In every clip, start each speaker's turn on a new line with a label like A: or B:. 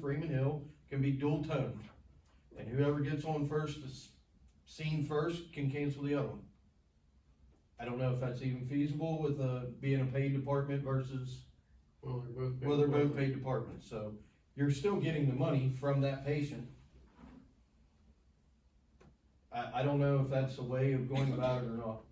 A: Freeman Hill can be dual toned. And whoever gets on first, is seen first, can cancel the other one. I don't know if that's even feasible with, uh, being a paid department versus,
B: Well, they're both.
A: well, they're both paid departments, so you're still getting the money from that patient. I, I don't know if that's a way of going about it or not.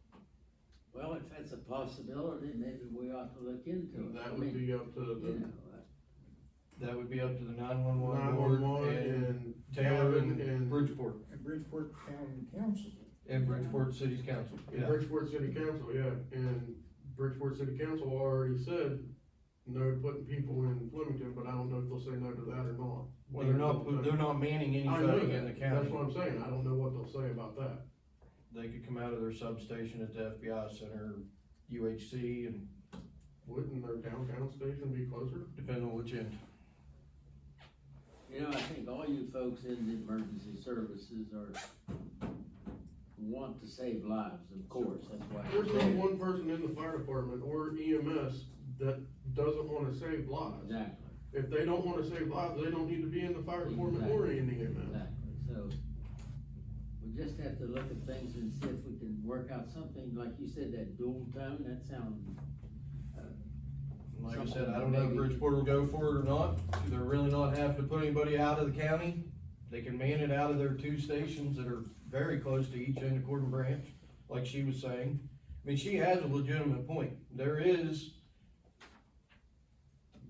C: Well, if that's a possibility, maybe we ought to look into it. I
B: That
C: mean,
B: would be up to
C: you know,
B: the
C: uh,
A: That would be up to the nine-one-one
B: nine-one-one
A: board and
B: and
A: Taylor
B: Gavin
A: and
B: and
A: Bridgeport,
D: And Bridgeport County Council.
A: and Bridgeport City's Council,
B: and
A: yeah.
B: Bridgeport City Council, yeah, and Bridgeport City Council already said no putting people in Flemington, but I don't know if they'll say no to that or not.
A: Well, they're not, put- they're not manning
B: I know
A: anything in the
B: that, that's
A: county.
B: what I'm saying, I don't know what they'll say about that.
A: They could come out of their substation at the FBI center, UHC, and
B: Wouldn't their downtown station be closer?
A: depend on which end.
C: You know, I think all you folks in the emergency services are, want to save lives, of course, that's why.
B: There's not one person in the fire department or
A: E
B: EMS that doesn't wanna save lives.
C: Exactly,
B: If they don't wanna save lives, they don't need to be in the fire department or in the EMS.
C: exactly, so we just have to look at things and see if we can work out something, like you said, that dual tone, that sounds. uh,
A: And Like I said, I don't know if Bridgeport will go for it or not, they're really not having to put anybody out of the county. They can man it out of their two stations that are very close to each end of Corden Branch, like she was saying. I mean, she has a legitimate point, there is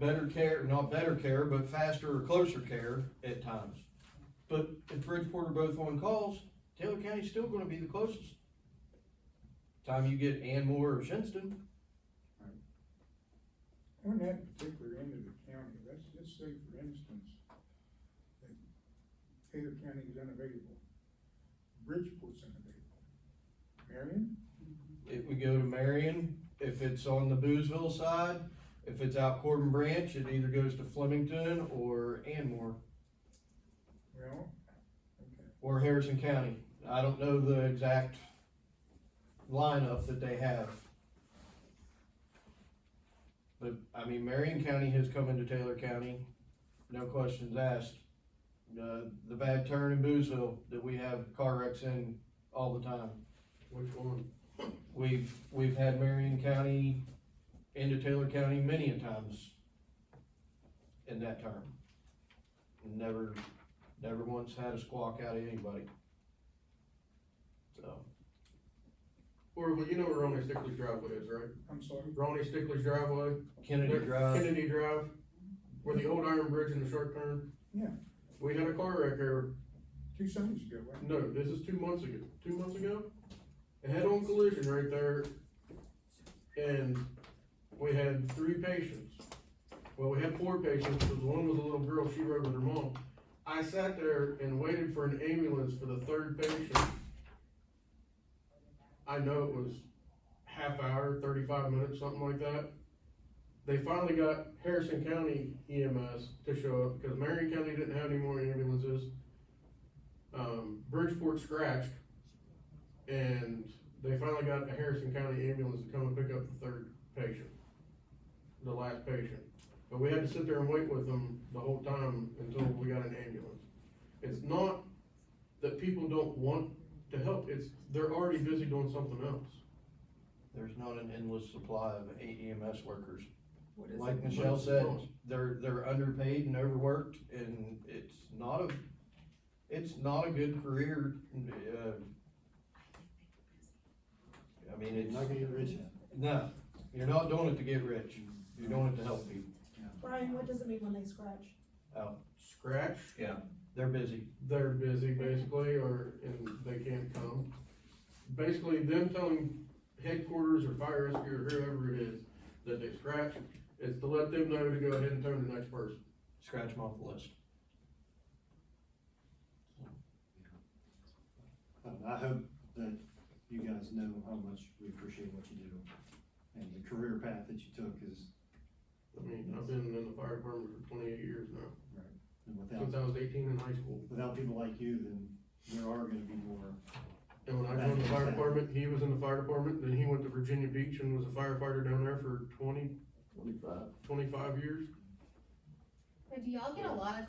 A: better care, not better care, but faster or closer care at times. But if Bridgeport are both on calls, Taylor County's still gonna be the closest. Time you get Anmore or Shinston,
D: On that particular end of the county, let's just say for instance, that Taylor County is unavailable, Bridgeport's unavailable. Marion,
A: If we go to Marion, if it's on the Boozville side, if it's out Corbin Branch, it either goes to Flemington or Anmore
D: well, okay,
A: or Harrison County. I don't know the exact lineup that they have. But, I mean, Marion County has come into Taylor County, no questions asked. The, the bad turn in Boozville that we have car wrecks in all the time.
B: Which one?
A: We've, we've had Marion County into Taylor County many a times in that term. Never, never once had a squawk out of anybody. So,
B: Or, well, you know where Ronnie Stickley's driveway is, right?
D: I'm sorry,
B: Ronnie Stickley's driveway.
A: Kennedy Drive,
B: Kennedy Drive, where the old iron bridge and the sharp turn.
D: Yeah.
B: We had a car wreck there,
D: two summers ago, wasn't
B: no, this is two months ago, two months ago? A head-on collision right there, and we had three patients. Well, we had four patients, because one was a little girl, she rode with her mom. I sat there and waited for an ambulance for the third patient. I know it was half hour, thirty-five minutes, something like that. They finally got Harrison County EMS to show up, because Marion County didn't have any more ambulances. Um, Bridgeport scratched, and they finally got a Harrison County ambulance to come and pick up the third patient, the last patient. But we had to sit there and wait with them the whole time until we got an ambulance. It's not that people don't want to help, it's, they're already busy doing something else.
A: there's not an endless supply of AEMS workers.
E: What is
A: Like
E: it?
A: Michelle said, they're, they're underpaid and overworked, and it's not a, it's not a good career, uh, I mean, it's.
F: Not gonna get rich.
A: No, you're not doing it to get rich, you're doing it to help people.
E: Brian, what does it mean when they scratch?
B: Scratch,
A: They're busy.
B: they're busy basically, or, and they can't come. Basically, them telling headquarters or fire rescue or whoever it is that they scratch, is to let them know to go ahead and turn the next person.
A: Scratch them off the list.
F: Um, I hope that you guys know how much we appreciate what you do, and the career path that you took is,
B: I mean, I've been in the fire department for twenty-eight years now,
F: and
B: since
F: without,
B: I was eighteen in high school.
F: without people like you, then there are gonna be more.
B: And when I joined the fire department, he was in the fire department, then he went to Virginia Beach and was a firefighter down there for twenty,
F: Twenty-five.
B: twenty-five years.
G: But do y'all get a lot of